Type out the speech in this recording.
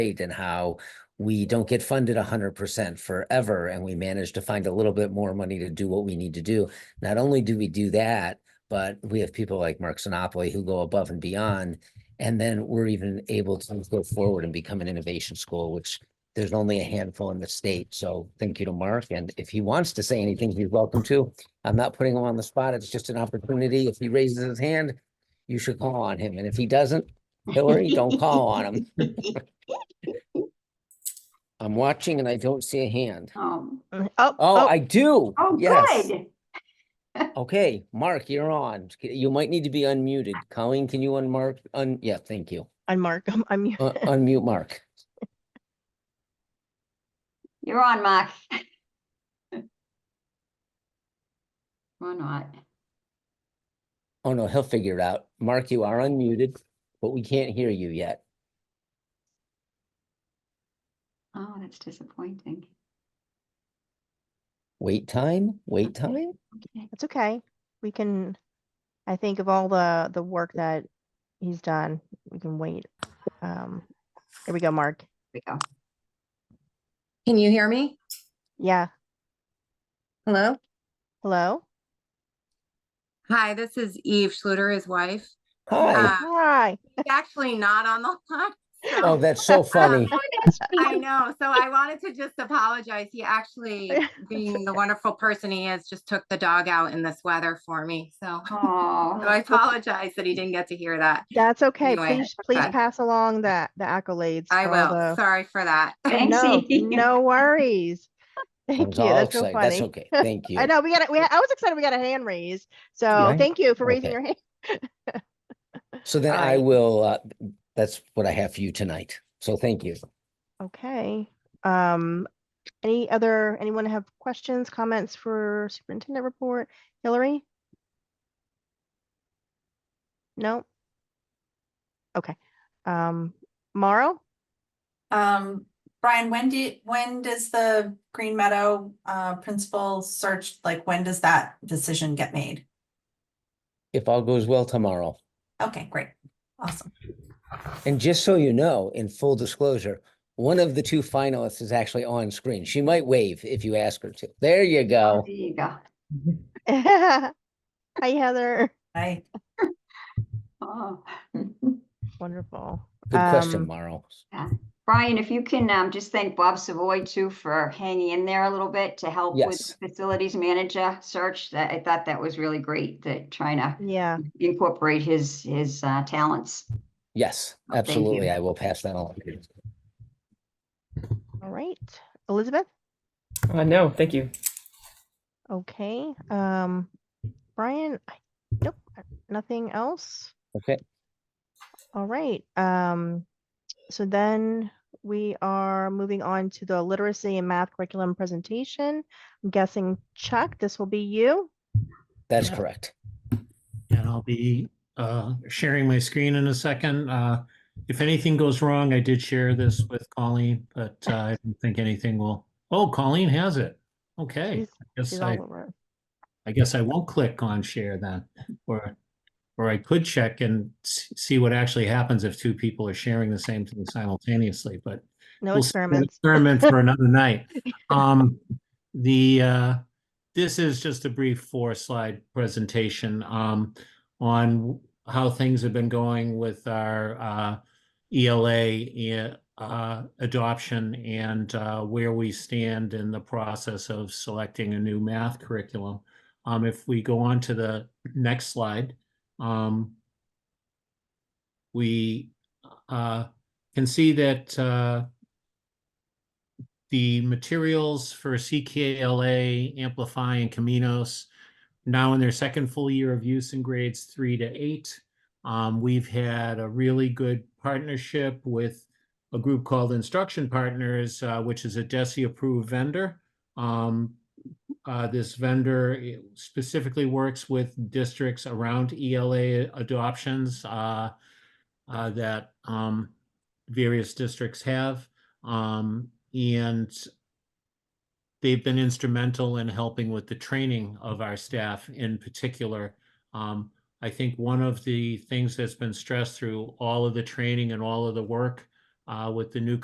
great and how we don't get funded hundred percent forever and we manage to find a little bit more money to do what we need to do. Not only do we do that, but we have people like Mark Sinopoli who go above and beyond. And then we're even able to go forward and become an innovation school, which there's only a handful in the state. So thank you to Mark. And if he wants to say anything, he's welcome to. I'm not putting him on the spot. It's just an opportunity. If he raises his hand, you should call on him. And if he doesn't, Hillary, don't call on him. I'm watching and I don't see a hand. Um, Oh, Oh, oh, I do. oh, Yes. good. Okay, Mark, you're on. You might need to be unmuted. Colleen, can you unmark? Un, yeah, thank you. I'm Mark, I'm- I'm, you. Un- Unmute Mark. You're on, Mark. Or not. Oh, no, he'll figure it out. Mark, you are unmuted, but we can't hear you yet. Oh, that's disappointing. Wait time, wait time? Okay. it's okay. We can, I think of all the, the work that he's done, we can wait. Um, here we go, Mark. We go. Can you hear me? Yeah, Hello? hello? Hi, this is Eve Schluter, his wife. Hi. Ah. Uh, Hi. He's actually not on the line. Oh, so- that's so funny. I know. So I wanted to just apologize. He actually, being the wonderful person he is, just took the dog out in this weather for me. So so I Oh, apologize that he didn't get to hear that. That's okay. Anyway, Please, please okay. pass along the, the accolades. I for all will. the- Sorry for that. Oh, Thanks, No, Eve. no worries. I Thank was you. all That's so excited. That's funny. okay. Thank you. I know, we got, we, I was excited we got a hand raise. So Right? thank you for raising Okay. your hand. So then All I right. will, uh, that's what I have for you tonight. So thank you. Okay, um, any other, anyone have questions, comments for superintendent report? Hillary? No? Okay, um, Mauro? Um, Brian, when do, you- when does the Green Meadow uh principal search, like, when does that decision get made? If all goes well tomorrow. Okay, great, awesome. And just so you know, in full disclosure, one of the two finalists is actually on screen. She might wave if you ask her to. There you There go. you go. Hi Heather, I, Oh. wonderful. Good question, Um, Mauro. Brian, if you can, um, just thank Bob Savoy too for hanging in there a little bit to help Yes. with the facilities manager search. That, I thought that was really great, that trying to Yeah, incorporate his, his, uh, talents. Yes, Oh, thank you. absolutely. I will pass that on. all right, Elizabeth, Uh, no, thank you. okay, um, Brian, I- nope, I- nothing else? Okay. All right, um, so then we are moving on to the literacy and math curriculum presentation. I'm guessing Chuck, this will be you. That's Yeah. correct. Mm-hmm. And I'll be uh, sharing my screen in a second. Uh, If anything goes wrong, I did share this with Colleen, but uh, I don't think anything will. Oh, Colleen has it. Okay. She's- I guess She's I, all over. I guess I won't click on share then, or, or I could check and s- see what actually happens if two people are sharing the same thing simultaneously, but No we'll save that experiments. Experiment for another night. Um, the, uh, this is just a brief four slide presentation, um, on how things have been going with our, uh, ELA, uh, adoption and, uh, where we stand in the process of selecting a new math curriculum. Um, if we go on to the next slide, um, we, uh, can see that, uh, the materials for CKLA, Amplify, and Caminos now in their second full year of use in grades three to eight. Um, we've had a really good partnership with a group called Instruction Partners, uh, which is a DESI-approved vendor. Um, uh, this vendor eh, specifically works with districts around ELA adoptions uh, uh, that um, various districts have. Um, and they've been instrumental in helping with the training of our staff in particular. Um, I think one of the things that's been stressed through all of the training and all of the work uh, with the new